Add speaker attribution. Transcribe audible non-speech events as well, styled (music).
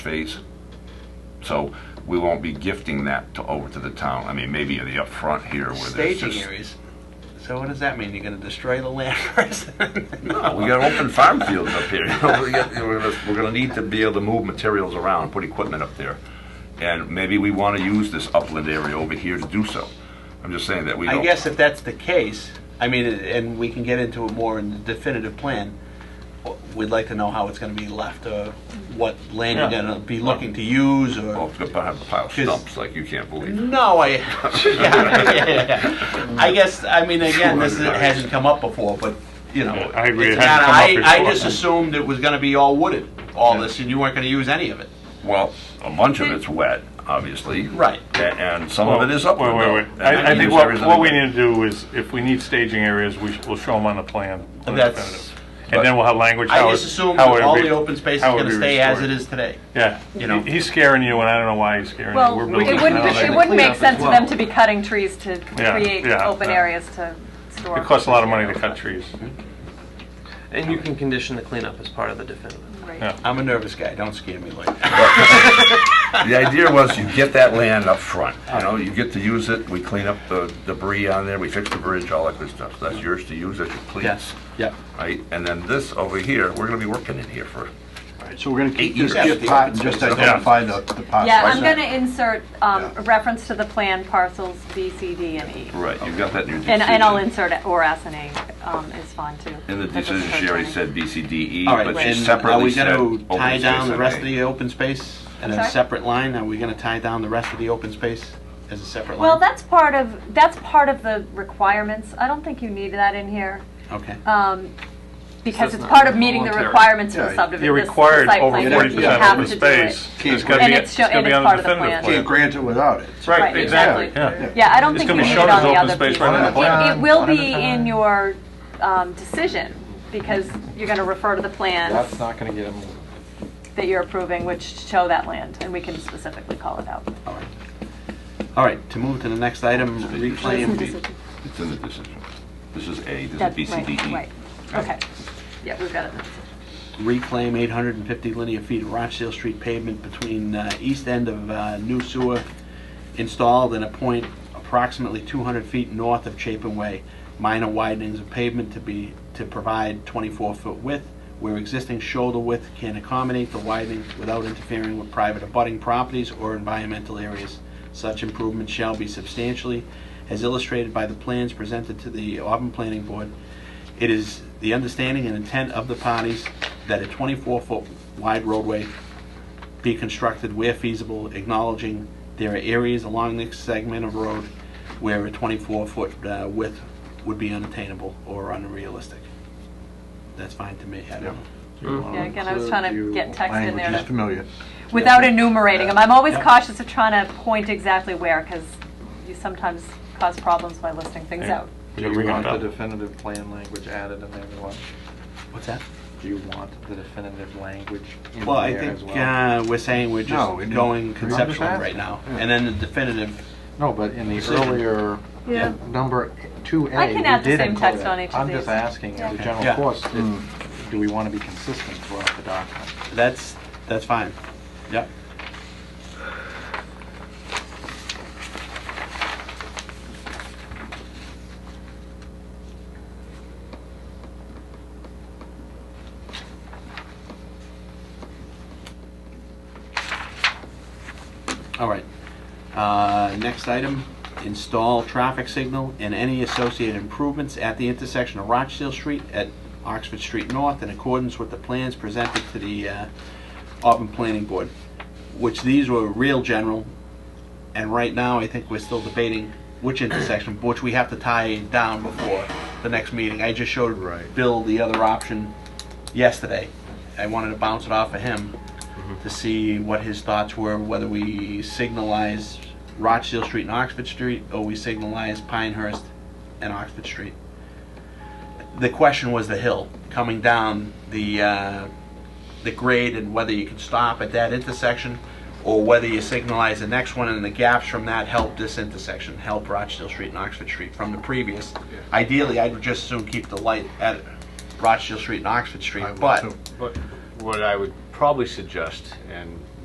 Speaker 1: phase. So we won't be gifting that to, over to the town. I mean, maybe in the upfront here where there's
Speaker 2: Staging
Speaker 1: just.
Speaker 2: areas. So what does that mean? You're gonna destroy the (laughs) land first?
Speaker 1: No, (laughs) we got open farm fields up here. You know, we got- We're gonna, we're gonna need to be able to move materials around, put equipment up there. And maybe we wanna use this upland area over here to do so. I'm just saying that we don't.
Speaker 2: I guess if that's the case, I mean, and we can get into it more in the definitive plan, we'd like to know how it's gonna be left, or what land you're
Speaker 1: Yeah.
Speaker 2: gonna be looking to use, or.
Speaker 3: Oh.
Speaker 1: Well, it's gonna have a pile of stumps like you can't believe.
Speaker 2: No, I. (laughs) yeah, yeah, yeah. I guess I mean again, this is- hasn't come up before, but you know,
Speaker 3: I agree, it
Speaker 2: it's
Speaker 3: hasn't
Speaker 2: not-
Speaker 3: come up
Speaker 2: I, I
Speaker 3: before.
Speaker 2: just assumed it was going to be all wooded, all this, and you weren't going to use any of it.
Speaker 1: Well, a bunch of it's wet, obviously.
Speaker 2: Right.
Speaker 1: A- And some of it is upland.
Speaker 3: Wait,
Speaker 1: though.
Speaker 3: wait,
Speaker 1: And
Speaker 3: wait. I, I
Speaker 1: use
Speaker 3: think what,
Speaker 1: everything
Speaker 3: what we
Speaker 1: that-
Speaker 3: need to do is, if we need staging areas, we sh- we'll show them on the plan. on the
Speaker 2: That's-
Speaker 3: definitive. And then we'll have language.
Speaker 2: I
Speaker 3: how it-
Speaker 2: just assumed
Speaker 3: how it
Speaker 2: all
Speaker 3: would
Speaker 2: the
Speaker 3: be-
Speaker 2: open space is
Speaker 3: how it would
Speaker 2: going to
Speaker 3: be
Speaker 2: stay as it
Speaker 3: restored.
Speaker 2: is today.
Speaker 3: Yeah,
Speaker 2: you know.
Speaker 3: He- he's scaring you and I don't know why he's scaring you.
Speaker 4: Well,
Speaker 3: We're
Speaker 4: it
Speaker 3: building
Speaker 4: wouldn't,
Speaker 3: houses.
Speaker 4: it wouldn't make sense for them to be cutting trees to
Speaker 3: Yeah,
Speaker 4: create
Speaker 3: yeah,
Speaker 4: open
Speaker 3: yeah.
Speaker 4: areas to store.
Speaker 3: It costs a lot of money to cut trees.
Speaker 5: And you can condition the cleanup as part of the definitive.
Speaker 4: Right.
Speaker 3: Yeah.
Speaker 2: I'm a nervous guy. Don't scare me (laughs) like that.
Speaker 1: The idea was you get that land up front, you know, you get to use it, we clean up the debris on there, we fix the bridge, all that good stuff. That's yours to use as you please,
Speaker 2: Yes. Yep.
Speaker 1: right? And then this over here, we're gonna be working in here for,
Speaker 6: Alright, So we're gonna keep
Speaker 1: Eight
Speaker 6: this
Speaker 1: years.
Speaker 6: gift pot and just identify the, the pot.
Speaker 4: Yeah,
Speaker 6: size.
Speaker 4: I'm going to insert um,
Speaker 6: Yeah.
Speaker 4: a reference to the plan parcels B, C, D, and E.
Speaker 1: right, you got that in your decision.
Speaker 4: And, and I'll insert it, or S and A um, is fine too.
Speaker 1: In the
Speaker 4: That doesn't
Speaker 1: decision,
Speaker 4: hurt
Speaker 1: she already
Speaker 4: any.
Speaker 1: said BCDE,
Speaker 2: All right.
Speaker 1: E, but she
Speaker 2: And are
Speaker 1: separately
Speaker 2: we
Speaker 1: said.
Speaker 2: going to
Speaker 1: open
Speaker 2: tie
Speaker 1: space
Speaker 2: down the
Speaker 1: and
Speaker 2: rest
Speaker 1: A.
Speaker 2: of the open space in a
Speaker 4: Sorry?
Speaker 2: separate line? Are we going to tie down the rest of the open space as a separate
Speaker 4: Well,
Speaker 2: line?
Speaker 4: that's part of, that's part of the requirements. I don't think you need that in here,
Speaker 2: okay.
Speaker 4: um, because
Speaker 5: So it's
Speaker 4: it's
Speaker 5: not
Speaker 4: part of meeting the
Speaker 5: voluntary.
Speaker 4: requirements for
Speaker 6: Yeah,
Speaker 4: the
Speaker 6: you're
Speaker 4: subdivision.
Speaker 3: You're
Speaker 4: this- the
Speaker 3: required
Speaker 4: site
Speaker 3: over
Speaker 4: plan.
Speaker 3: forty
Speaker 4: You
Speaker 3: percent
Speaker 4: have
Speaker 3: open
Speaker 4: to do it.
Speaker 3: space. It's gonna
Speaker 4: And
Speaker 3: be,
Speaker 4: it's
Speaker 3: it's
Speaker 4: show-
Speaker 3: gonna
Speaker 4: and
Speaker 3: be
Speaker 4: it's
Speaker 3: on the
Speaker 4: part of the
Speaker 3: definitive
Speaker 4: plan.
Speaker 6: Can't
Speaker 3: plan.
Speaker 6: grant it without it.
Speaker 3: Right,
Speaker 4: Right,
Speaker 3: exactly,
Speaker 4: exactly.
Speaker 3: yeah.
Speaker 4: Yeah, I don't
Speaker 3: It's
Speaker 4: think you
Speaker 3: gonna be
Speaker 4: need it
Speaker 3: shown as
Speaker 4: on the
Speaker 3: open
Speaker 4: other
Speaker 3: space
Speaker 4: people.
Speaker 3: right on the
Speaker 4: It-
Speaker 3: plan.
Speaker 4: It will
Speaker 6: One at a
Speaker 4: be in
Speaker 6: time.
Speaker 4: your um, decision, because you're gonna refer to the plans
Speaker 7: That's not gonna get them.
Speaker 4: that you're approving, which show that land, and we can specifically call it out.
Speaker 2: All right. All right. To move to the next item, reclaim.
Speaker 1: It's in the decision. This is A, this
Speaker 4: That's
Speaker 1: is
Speaker 4: right,
Speaker 1: BCDE.
Speaker 4: Right, okay. Yeah, we've got it.
Speaker 2: reclaim 850 linear feet of Rochdale Street pavement between uh, east end of uh, new sewer installed and a point approximately 200 feet north of Chapin Way. Minor widenings of pavement to be, to provide 24-foot width where existing shoulder width can accommodate the widening without interfering with private abutting properties or environmental areas. Such improvements shall be substantially, as illustrated by the plans presented to the Auburn Planning Board, it is the understanding and intent of the parties that a 24-foot wide roadway be constructed where feasible, acknowledging there are areas along this segment of road where a 24-foot uh, width would be unattainable or unrealistic. That's fine to me. I don't know.
Speaker 7: Um,
Speaker 4: Yeah, again, I was trying to get text in there
Speaker 6: Language is
Speaker 4: that-
Speaker 6: familiar.
Speaker 4: without enumerating them. I'm always
Speaker 2: Yeah.
Speaker 4: cautious of trying to point exactly where, because you sometimes cause problems by listing things
Speaker 3: Yeah.
Speaker 4: out.
Speaker 3: We
Speaker 7: Do
Speaker 3: can
Speaker 7: you
Speaker 3: bring it
Speaker 7: want the
Speaker 3: up.
Speaker 7: definitive plan language added in everyone?
Speaker 2: What's that?
Speaker 7: Do you want the definitive language in
Speaker 2: Well, I
Speaker 7: there as
Speaker 2: think
Speaker 7: well?
Speaker 2: uh, we're saying we're just
Speaker 6: No, we didn't.
Speaker 2: going
Speaker 6: I'm just
Speaker 2: conceptual right
Speaker 6: asking.
Speaker 2: now.
Speaker 6: Yeah.
Speaker 2: And then the definitive,
Speaker 7: No, but in the
Speaker 2: Decision.
Speaker 7: earlier,
Speaker 4: Yeah.
Speaker 7: number two A,
Speaker 4: I
Speaker 7: we
Speaker 4: can add the
Speaker 7: did
Speaker 4: same
Speaker 7: include
Speaker 4: text
Speaker 7: it.
Speaker 4: on each of
Speaker 7: I'm just
Speaker 4: these.
Speaker 7: asking, as a
Speaker 4: Yeah.
Speaker 7: general
Speaker 2: Yeah. Hmm.
Speaker 7: course, if- do we want to be consistent throughout the document?
Speaker 2: that's, that's fine. Yep. All right. Uh, Next item, install traffic signal and any associated improvements at the intersection of Rochdale Street at Oxford Street North in accordance with the plans presented to the uh, Auburn Planning Board, which these were real general, and right now, I think we're still debating which intersection, which we have to tie down before the next meeting. I just showed
Speaker 6: Right.
Speaker 2: Bill the other option yesterday. I wanted to bounce it off of him
Speaker 6: Mm-hmm.
Speaker 2: to see what his thoughts were, whether we signalize Rochdale Street and Oxford Street, or we signalize Pinehurst and Oxford Street. The question was the hill, coming down the, uh, the grade and whether you can stop at that intersection or whether you signalize the next one and the gaps from that help this intersection, help Rochdale Street and Oxford Street from the previous. Ideally, I'd just soon keep the light at Rochdale Street and Oxford Street,
Speaker 6: I would
Speaker 2: but
Speaker 6: too.
Speaker 8: But what I would probably suggest, and